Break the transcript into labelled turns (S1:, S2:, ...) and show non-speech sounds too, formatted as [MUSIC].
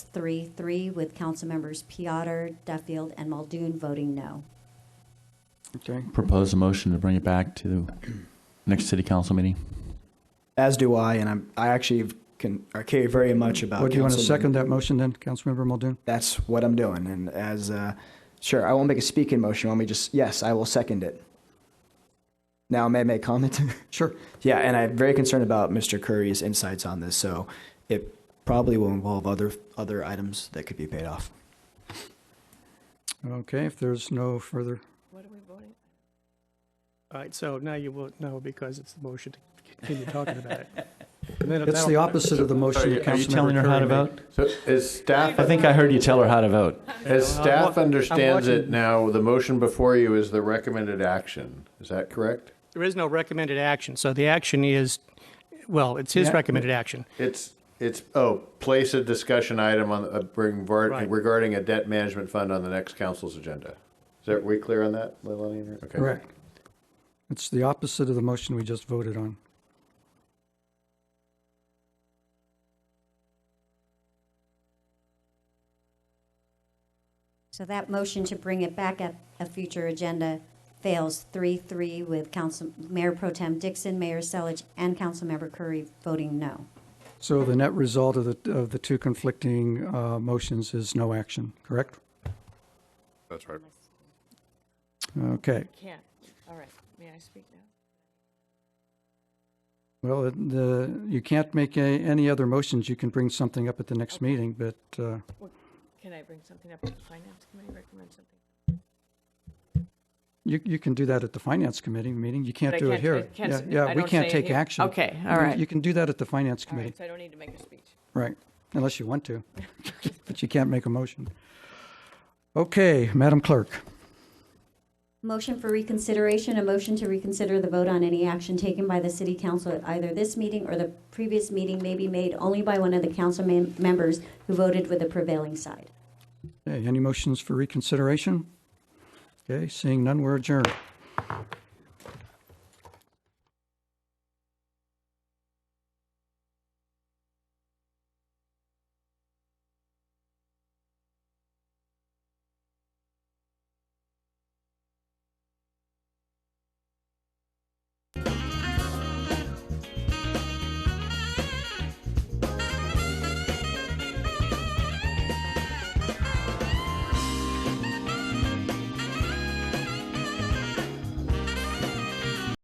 S1: three-three, with Councilmembers Piotr, Duffield, and Muldoon voting no.
S2: Okay.
S3: Propose a motion to bring it back to next city council meeting.
S4: As do I, and I'm, I actually can, I care very much
S3: Uh,
S4: about.
S2: Well, do you want to
S4: Councilman-
S2: second that motion then, Councilmember Muldoon?
S4: That's what I'm doing, and as, uh, sure, I won't make a speaking motion, let me just, yes, I will second it. Now, may I make comment? [LAUGHS]
S2: Sure.
S4: Yeah, and I'm very concerned about Mr. Curry's insights on this, so it probably will involve other, other items that could be paid off.
S2: Okay, if there's no further,
S5: All right, so now you won't know because it's the motion to continue talking about it. And then
S2: it's the
S5: that'll-
S2: opposite of the motion that Councilmember
S3: Are you telling her how to
S2: Curry made.
S3: vote?
S6: So as staff,
S3: I think I heard you tell her how to vote.
S6: as staff
S5: wa- I'm
S6: understands it
S5: watching.
S6: now, the motion before you is the recommended action. Is that correct?
S5: There is no recommended action, so the action is, well, it's his
S2: Yeah.
S5: recommended action.
S6: It's, it's, oh, place a discussion item on, uh, bring var-
S5: Right.
S6: regarding a debt management fund on the next council's agenda. Is that, we clear on that, Leilani? Okay.
S2: Correct. It's the opposite of the motion we just voted on.
S1: So that motion to bring it back at a future agenda fails three-three with Council, Mayor Pro Tem Dixon, Mayor Selich, and Councilmember Curry voting no.
S2: So the net result of the, of the two conflicting uh, motions is no action, correct?
S6: That's right.
S2: Okay,
S7: Can't. All right. May I speak now?
S2: well, it- the, you can't make a- any other motions. You can bring something up at the next meeting, but uh,
S7: Can I bring something up to the finance committee, recommend something?
S2: you, you can do that at the Finance Committee meeting. You can't
S7: But I
S2: do it
S7: can't- I
S2: here.
S7: can't
S2: Yeah,
S7: s-
S2: yeah,
S7: I
S2: we
S7: don't
S2: can't
S7: say
S2: take
S7: here.
S2: action.
S7: Okay, all
S2: You-
S7: right.
S2: You can do that at the Finance
S7: All
S2: Committee.
S7: right, so I don't need to make a speech.
S2: Right, unless you want to, [LAUGHS] but you can't make a motion. Okay, Madam Clerk,
S1: Motion for reconsideration, a motion to reconsider the vote on any action taken by the city council at either this meeting or the previous meeting may be made only by one of the council mem- members who voted with the prevailing side.
S2: Okay, any motions for reconsideration? Okay, seeing none, we're adjourned.